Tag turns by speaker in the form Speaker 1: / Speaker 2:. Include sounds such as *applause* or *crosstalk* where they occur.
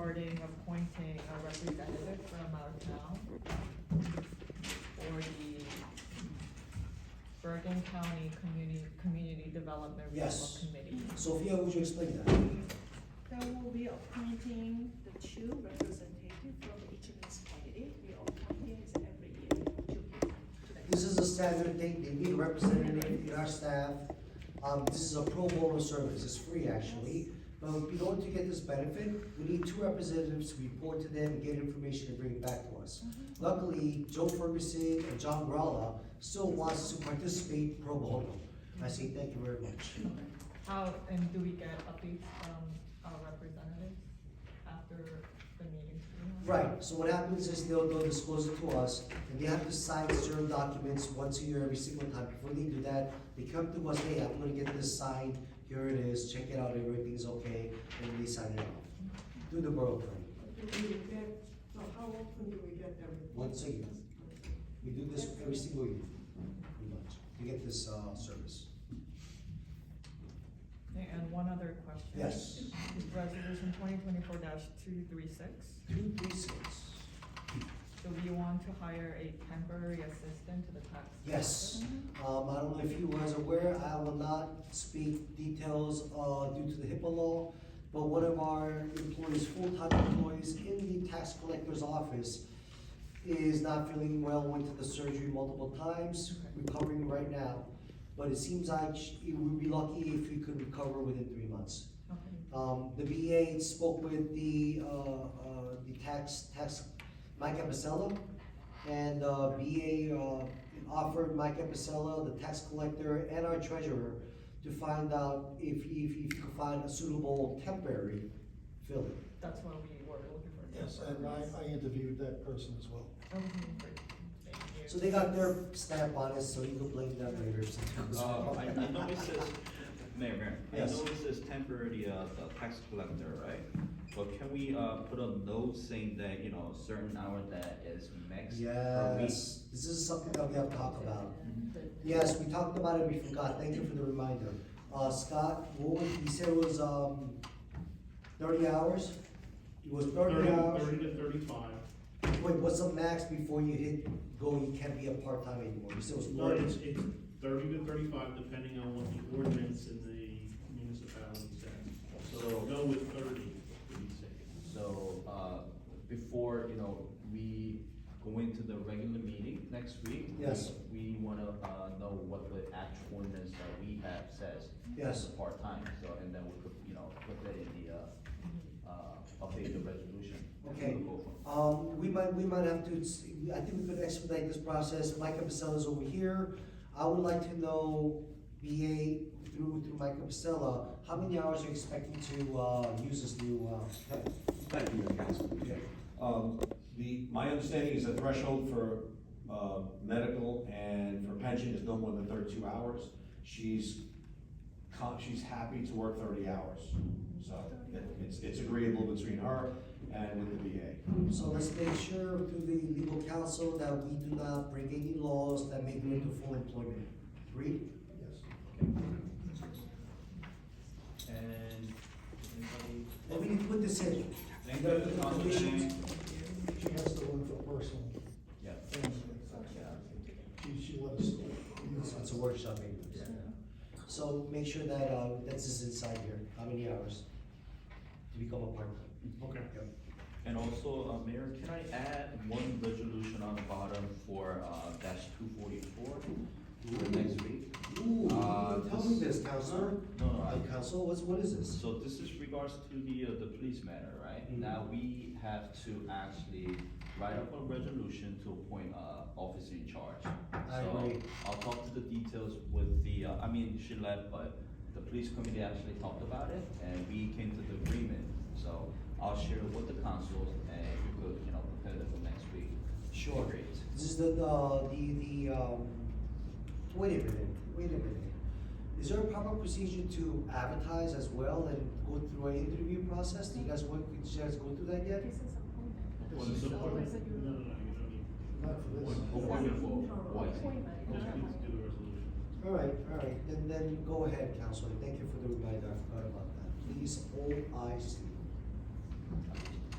Speaker 1: regarding appointing a representative from our town for the Bergen County Community, Community Development Regional
Speaker 2: Yes.
Speaker 1: Committee.
Speaker 2: Sophia, would you explain that?
Speaker 3: That will be appointing the two representatives from each municipality. We appointing is every year, two people. to the-
Speaker 2: This is a standard thing, they need a representative in our staff. Um, this is a pro bono service, it's free actually. But in order to get this benefit, we need two representatives to report to them, get information and bring it back to us. Luckily, Joe Ferguson and John Gralla still wants to participate pro bono. I say thank you very much.
Speaker 1: How, and do we get updates from our representatives after the meetings? we have?
Speaker 2: Right, so what happens is they'll, they'll disclose it to us, and they have to sign certain documents once a year, every single time, before they do that, they come to us, hey, I'm gonna get this signed, here it is, check it out, everything's okay, and they sign it off. Do the borough plan,
Speaker 4: Do we get, so how often do we get them?
Speaker 2: once a year, we do this every single year, pretty much, to get this, uh, service.
Speaker 1: Okay, And one other question.
Speaker 2: Yes,
Speaker 1: Resolution twenty twenty-four two three six.
Speaker 2: two, three, six,
Speaker 1: So we want to hire a temporary assistant to the tax.
Speaker 2: yes. Um, I don't know if you was aware, I will not speak details, uh, due to the HIPAA law, but one of our employees, full-time employees in the tax collector's office is not feeling well, went to the surgery multiple times, recovering right now. But it seems like sh- we would be lucky if we could recover within three months.
Speaker 1: Okay.
Speaker 2: Um, the VA spoke with the, uh, uh, the tax, tax, Mike Epicella, and, uh, VA, uh, offered Mike Epicella, the tax collector, and our treasurer to find out if, if, if you could find a suitable temporary fill-in.
Speaker 1: That's what we were looking for.
Speaker 5: Yes, and I, I interviewed that person as well.
Speaker 1: Okay, great. Thank you.
Speaker 2: So they got their stamp on it, so you can blame them later. if something goes
Speaker 6: Uh,
Speaker 2: wrong.
Speaker 6: I,
Speaker 2: *laughs*
Speaker 6: I know it says, Mayor, Mayor, I
Speaker 2: Yes.
Speaker 6: know it says temporary, uh, the tax collector, right? But can we, uh, put a note saying that, you know, a certain hour that is max per week? Mm-hmm.
Speaker 2: Yes, this is something that we have to talk about. Yes, we talked about it, we forgot, thank you for the reminder. Uh, Scott, what was, he said it was, um, thirty hours? It was thirty hours?
Speaker 7: Thirty to thirty-five.
Speaker 2: Wait, what's the max before you hit, go, you can't be a part-time anymore? You said it was
Speaker 7: Thirty,
Speaker 2: thirty?
Speaker 7: it's, it's thirty to thirty-five, depending on what the ordinance in the municipality says. So
Speaker 6: So-
Speaker 7: go with thirty, to be safe.
Speaker 6: So, uh, before, you know, we go into the regular meeting next week.
Speaker 2: Yes.
Speaker 6: We wanna, uh, know what the actual ordinance that we have says.
Speaker 2: Yes.
Speaker 6: as a Part-time, so, and then we could, you know, put that in the, uh, uh, update the resolution.
Speaker 2: Okay.
Speaker 6: Go from
Speaker 2: Um, we might, we might have to, I think we could expedite this process, Micah Pacella's over here. I would like to know, BA, through, through Micah Pacella, how many hours are you expecting to, uh, use this new, uh, temp?
Speaker 8: Thank you, Councilman. Um, the, my understanding is the threshold for, uh, medical and for pension is no more than thirty-two hours. She's con, she's happy to work thirty hours, so it- it's, it's agreeable between her and with the VA.
Speaker 2: So let's make sure through the legal counsel that we do not break any laws that make it into full employment. Read?
Speaker 5: Yes.
Speaker 6: And, anybody?
Speaker 2: And we need to put this in.
Speaker 6: Thank you, Councilman.
Speaker 2: Conditions.
Speaker 5: She has to work for personal
Speaker 6: Yeah.
Speaker 5: things. She, she let us. know.
Speaker 2: It's it's a workshop maybe. So make sure that, uh, that's is inside here, how many hours to become a part-time.
Speaker 7: Okay.
Speaker 6: And also, uh, Mayor, can I add one resolution on the bottom for, uh, dash two forty-four for next week?
Speaker 2: Ooh,
Speaker 6: Uh,
Speaker 2: tell me this, counselor.
Speaker 6: No, no,
Speaker 2: Uh,
Speaker 6: I-
Speaker 2: counsel, what's, what is this?
Speaker 6: So this is regards to the, uh, the police matter, right?
Speaker 2: Mhm.
Speaker 6: Now, we have to actually write up a resolution to appoint, uh, officer in charge.
Speaker 2: I
Speaker 6: So,
Speaker 2: agree.
Speaker 6: I'll talk to the details with the, uh, I mean, she left, but the police committee actually talked about it, and we came to the agreement. So, I'll share it with the council, and we could, you know, prepare it for next week.
Speaker 2: Sure.
Speaker 6: Great.
Speaker 2: This is the, the, the, the, um, wait a minute, wait a minute. Is there a proper procedure to advertise as well and go through an interview process? Do you guys want, did you guys go through that yet?
Speaker 3: This is appointment.
Speaker 7: Well,
Speaker 6: Well,
Speaker 7: it's
Speaker 6: so-
Speaker 7: appointment- No, no, no, you don't need,
Speaker 5: Not for this.
Speaker 6: Appointment for White.
Speaker 3: Appointment.
Speaker 7: you just need to do the resolution.
Speaker 2: All right, all right, then, then go ahead, Counselor, thank you for the reminder, I forgot about that. Please, all eyes.
Speaker 6: I